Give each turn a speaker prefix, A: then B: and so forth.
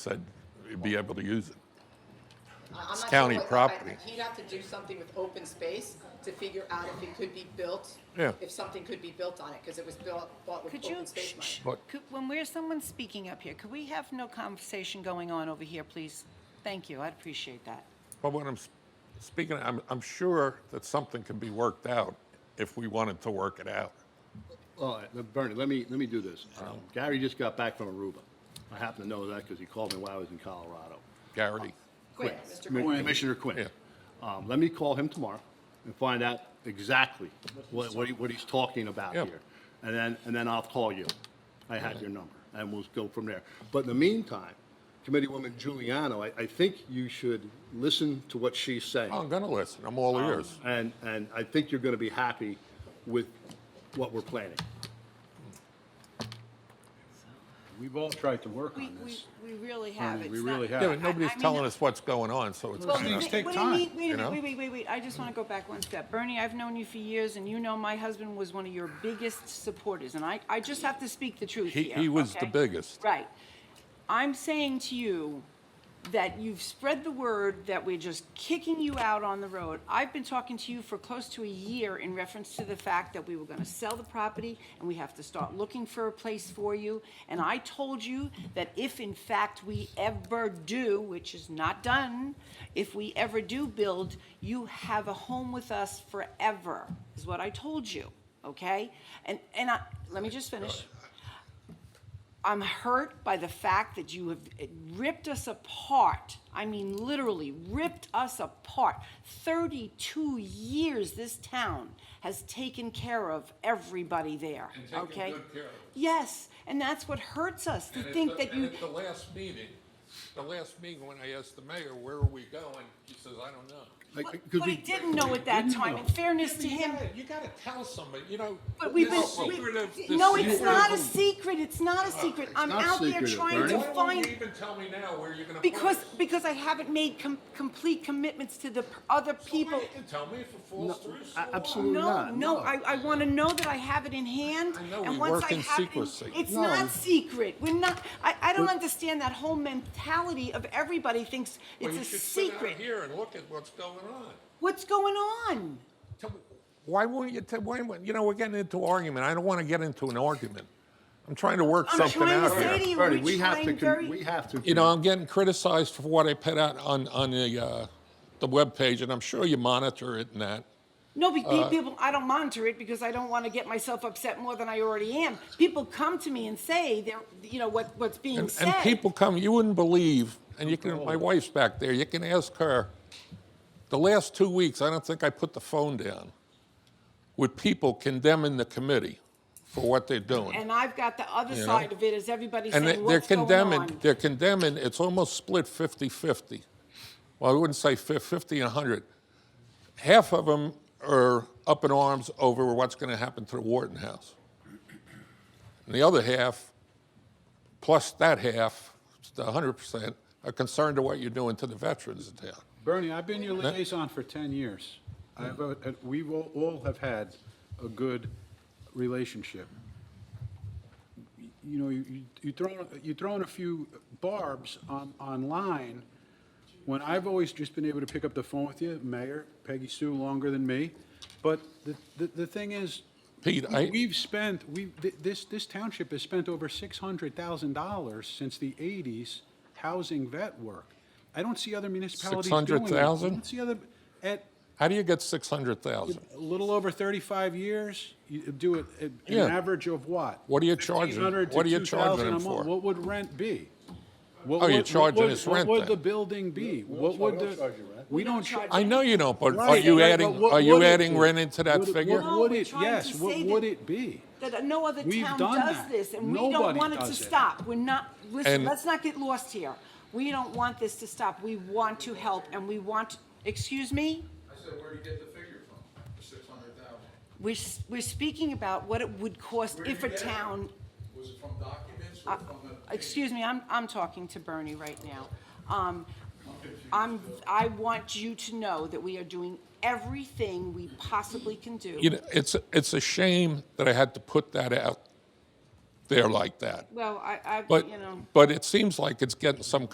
A: said be able to use it.
B: I- I'm not sure
A: county
B: what- I-
A: property.
B: He'd have to do something with open space to figure out if it could be built.
A: Yeah.
B: If something could be built on it, because it was built, bought with
C: Could you,
B: open space money.
C: shh,
A: What?
C: could- when we're, someone's speaking up here, could we have no conversation going on over here, please? Thank you, I'd appreciate that.
A: But when I'm s- speaking, I'm, I'm sure that something can be worked out if we wanted to work it out.
D: All right, now, Bernie, let me, let me do this. Um, Gary just got back from Aruba. I happen to know that because he called me while I was in Colorado.
A: Gary,
B: Quinn, Mr.
D: Commi-
B: Quinn.
D: Commissioner Quinn.
A: Yeah.
D: Um, Let me call him tomorrow and find out exactly what, what he- what he's talking about
A: Yeah.
D: here. And then, and then I'll call you. I have your number, and we'll go from there. But in the meantime, Committeewoman Giuliano, I, I think you should listen to what she's saying.
A: Oh, I'm going to listen. I'm all ears.
D: And, and I think you're going to be happy with what we're planning.
E: We've all tried to work
C: We,
E: on
C: we,
E: this.
C: we really have.
E: Bernie,
C: It's
E: we
C: not-
E: really have.
A: Yeah, but nobody's
C: I- I mean,
A: telling us what's going on, so it's
C: Well,
A: kind of,
E: things take
C: what do you
E: time,
C: mean- Wait
A: you
C: a
A: know?
C: minute, wait, wait, wait, wait, I just want to go back one step. Bernie, I've known you for years, and you know my husband was one of your biggest supporters, and I, I just have to speak the truth
A: He-
C: here.
A: he was the
C: okay?
A: biggest.
C: Right. I'm saying to you that you've spread the word that we're just kicking you out on the road. I've been talking to you for close to a year in reference to the fact that we were gonna sell the property and we have to start looking for a place for you. And I told you that if in fact we ever do, which is not done, if we ever do build, you have a home with us forever, is what I told you, okay? And, and I, let me just finish. I'm hurt by the fact that you have ripped us apart. I mean, literally ripped us apart. 32 years this town has taken care of everybody there.
A: taken
C: okay?
A: good care of us.
C: Yes, and that's what hurts us to think that you.
A: at the last meeting, the last meeting when I asked the mayor, where are we going? He says, I don't know.
D: Like,
C: But,
D: 'cause
C: but
D: we-
C: he didn't know at that time. In fairness to him,
A: You got to tell somebody, you know.
C: But we've been,
A: this
C: we-
A: secretive- this
C: no, it's
A: secretive-
C: not a secret, it's not a secret. I'm
D: Uh, not
C: out there
D: secretive,
C: trying
D: Bernie.
C: to
A: Why don't you
C: find,
A: even tell me now where you're going to put
C: because,
A: us?
C: because I haven't made com- complete commitments to the p- other people.
A: Well, You can tell me if it falls through. so
D: a-
A: what?
D: absolutely
C: No,
D: not,
C: no,
D: no.
C: I, I wanna know that I have it in hand.
A: I know,
C: and
A: we
C: once
A: work
C: I
A: in
C: have it
A: secrecy.
C: It's
D: No.
C: not secret. We're not, I, I don't
D: But-
C: understand that whole mentality of everybody thinks
A: Well,
C: it's
A: you
C: a
A: should sit out
C: secret.
A: here and look at what's going on.
C: What's going on?
A: Tell me- Why won't you, tell- why, won't- you know, we're getting into argument. I don't want to get into an argument. I'm trying to work
C: I'm
A: something
C: trying to
A: out
C: say to
A: here.
C: you,
D: Bernie,
C: we're
D: we have to,
C: trying
D: con-
C: very.
D: we have to.
A: You know, I'm getting criticized for what I put out on, on the, uh, the webpage, and I'm sure you monitor it and that.
C: No, be, be-
A: Uh,
C: people, I don't monitor it because I don't want to get myself upset more than I already am. People come to me and say, they're, you know, what, what's being
A: And,
C: said.
A: and people come, you wouldn't believe, and you can, my wife's back there, you can ask her. The last two weeks, I don't think I put the phone down with people condemning the committee for what they're doing.
C: and I've got the other
A: You know?
C: side of it is everybody
A: And they-
C: saying,
A: they're
C: what's going
A: condemning,
C: on?
A: they're condemning, it's almost split 50-50. Well, I wouldn't say fif- 50 and 100. Half of them are up in arms over what's going to happen to the Wharton House. And the other half, plus that half, the 100%, are concerned to what you're doing to the veterans in town.
E: Bernie, I've been your liaison for 10 years. I- and We will all have had a good relationship. You know, you- you you throw, you throw in a few barbs on, online, when I've always just been able to pick up the phone with you, Mayor, Peggy Sue, longer than me. But the, the, the thing is,
A: Pete, I-
E: we've spent, we, th- this, this township has spent over six hundred thousand dollars since the eighties housing vet work. I don't see other municipalities doing it.
A: $600,000?
E: I don't see other, at
A: How do you get 600,000?
E: a little over thirty-five years, you do it, at an
A: Yeah.
E: average of what?
A: What are you charging?
E: 1,500 to
A: What are you
E: 2,000
A: charging
E: a
A: them
E: month.
A: for?
E: What would rent be?
A: Oh, you're charging us rent
E: What
A: then.
E: would the building be? What would the? We don't charge.
A: I know you don't, but are
E: Right,
A: you
E: right, but
A: adding,
E: what
A: are you
E: would it
A: adding
E: be?
A: rent into that
E: Would it-
A: figure?
C: No,
E: What would
C: we're
E: it,
C: trying
E: yes,
C: to
E: what
C: say
E: would
C: that-
E: it be?
C: That no other
E: We've
C: town
E: done
C: does
E: that.
C: this, and we don't
E: Nobody
C: want it to
E: does it.
C: stop. We're not, listen,
A: And-
C: let's not get lost here. We don't want this to stop. We want to help, and we want, excuse me?
F: I said, where'd you get the figure from, the six hundred thousand?
C: We're, s- we're speaking about what it would cost if a town,
F: Was it from documents or from the?
C: Uh, excuse me, I'm, I'm talking to Bernie right now. Um, I'm, I want you to know that we are doing everything we possibly can
A: you
C: do.
A: know, it's it's a shame that I had to put that out there like that.
C: Well, I, I,
A: But
C: you know.
A: but it seems like it's getting some